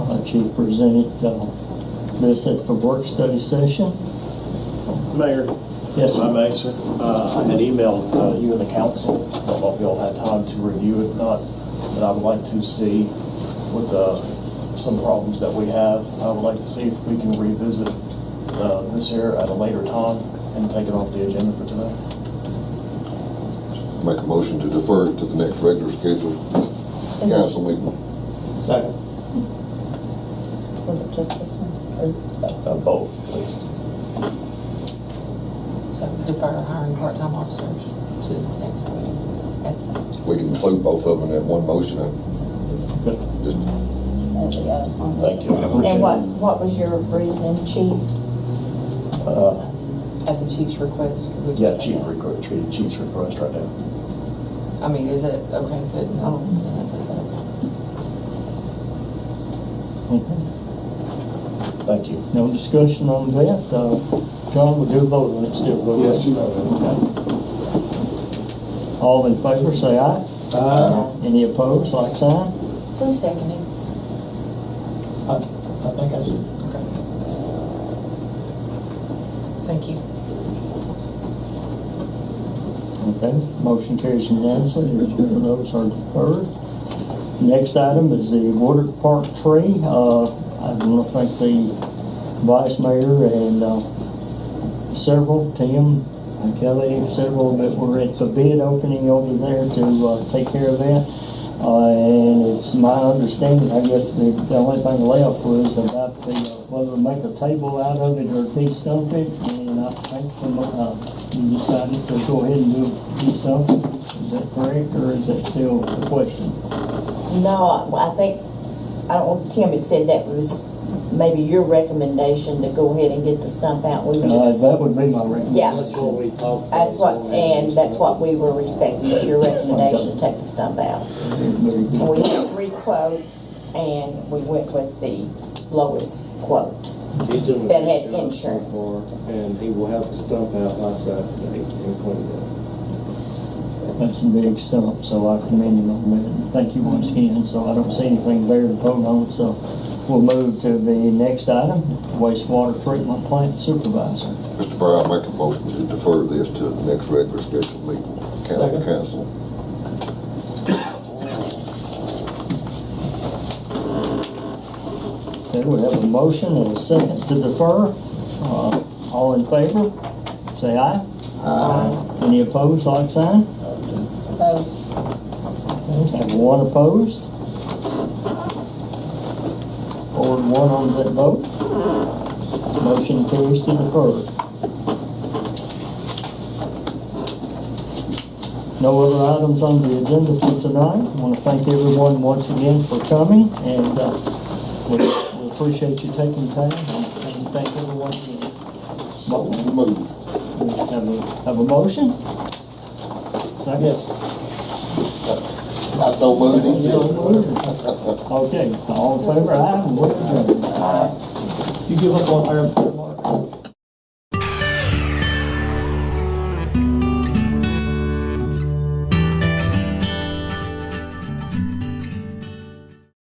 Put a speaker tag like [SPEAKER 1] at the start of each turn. [SPEAKER 1] that she presented uh, this at the work study session.
[SPEAKER 2] Mayor,
[SPEAKER 1] Yes,
[SPEAKER 2] if
[SPEAKER 1] sir.
[SPEAKER 2] I may, sir, uh, I had emailed uh, you and the council, I don't know if y'all had time to review it or not, but I would like to see with uh, some problems that we have, I would like to see if we can revisit uh, this here at a later time and take it off the agenda for tonight.
[SPEAKER 3] Make a motion to defer it to the next regular scheduled council meeting.
[SPEAKER 2] Second.
[SPEAKER 4] Was it just this one?
[SPEAKER 2] Uh, Both, please.
[SPEAKER 5] So defer hiring part-time officers to the next meeting. Okay.
[SPEAKER 3] We can include both of them in one motion and just,
[SPEAKER 2] Thank you.
[SPEAKER 4] And what, what was your reasoning, chief?
[SPEAKER 2] Uh,
[SPEAKER 5] At the chief's request. would you
[SPEAKER 2] Yeah,
[SPEAKER 5] say
[SPEAKER 2] chief
[SPEAKER 5] that?
[SPEAKER 2] request, chief's request right now.
[SPEAKER 5] I mean, is it, okay, good, no, then that's it, okay.
[SPEAKER 1] Okay.
[SPEAKER 2] Thank you.
[SPEAKER 1] No discussion on that. Uh, John, we do vote on it still, will we?
[SPEAKER 6] Yes, you
[SPEAKER 1] Okay. All in favor, say aye.
[SPEAKER 6] Uh,
[SPEAKER 1] Any opposed, like sign?
[SPEAKER 4] Who seconded?
[SPEAKER 2] I I think I did.
[SPEAKER 5] Thank you.
[SPEAKER 1] Okay, motion carries unanimously, the those are deferred. Next item is the water park tree. Uh, I want to thank the vice mayor and uh, several, Tim and Kelly, several that were at the bid opening over there to uh, take care of that. Uh, And it's my understanding, I guess the the only thing left was about the, uh, whether to make a table out of it or de-stump it. And I think from, uh, you decided to go ahead and do de-stump it. Is that correct or is that still a question?
[SPEAKER 4] No, I I think, I don't, know, Tim had said that was maybe your recommendation to go ahead and get the stump out. We were
[SPEAKER 1] Uh,
[SPEAKER 4] just,
[SPEAKER 1] That would be my recommendation.
[SPEAKER 4] Yeah.
[SPEAKER 6] That's what we talked. about,
[SPEAKER 4] that's what,
[SPEAKER 6] so we-
[SPEAKER 4] and that's what we were respecting, was your recommendation to take the stump out.
[SPEAKER 1] Very
[SPEAKER 4] And
[SPEAKER 1] good.
[SPEAKER 4] we had three quotes, and we went with the lowest quote.
[SPEAKER 6] He's doing a
[SPEAKER 4] that had
[SPEAKER 6] good job so
[SPEAKER 4] insurance.
[SPEAKER 6] far, And he will have the stump out by Saturday and clean it
[SPEAKER 1] That's a big stump, so I commend him on that. Thank you once again, so I don't see anything there to vote on, so we'll move to the next item, wastewater treatment plant supervisor.
[SPEAKER 3] Mr. Brown, make a motion to defer this to the next regular scheduled meeting, county
[SPEAKER 1] Second.
[SPEAKER 3] council.
[SPEAKER 1] Okay, we have a motion and a second to defer. Uh, All in favor, say aye. Aye. Any opposed, like sign?
[SPEAKER 5] Those,
[SPEAKER 1] Have one opposed? Or one on that vote? Motion carries to defer. No other items on the agenda for tonight. I want to thank everyone once again for coming, and uh, we we appreciate you taking time, and thank everyone for
[SPEAKER 3] So moved.
[SPEAKER 1] Have a, have a motion? Yes.
[SPEAKER 3] I so moved. he said.
[SPEAKER 1] Okay, all in favor, aye, and we're adjourned.
[SPEAKER 2] You give up on our,